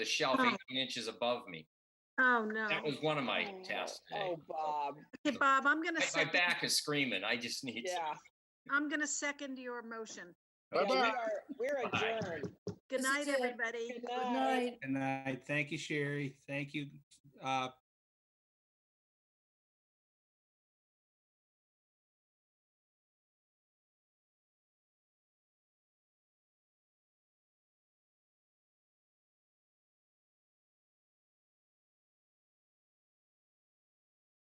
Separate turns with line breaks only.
the shelf
Oh.
18 inches above me.
Oh, no.
That was one of my
Oh,
tests. today.
Oh, Bob,
Okay, Bob, I'm going to
My- My
second,
back is screaming. I just need to.
yeah.
I'm going to second your motion.
Yeah, we
Bye-bye.
are- We're
Bye.
adjourned.
Good
This
night,
is it.
everybody.
Good
Good
night.
night.
And I thank you, Sherry. Thank you, uh,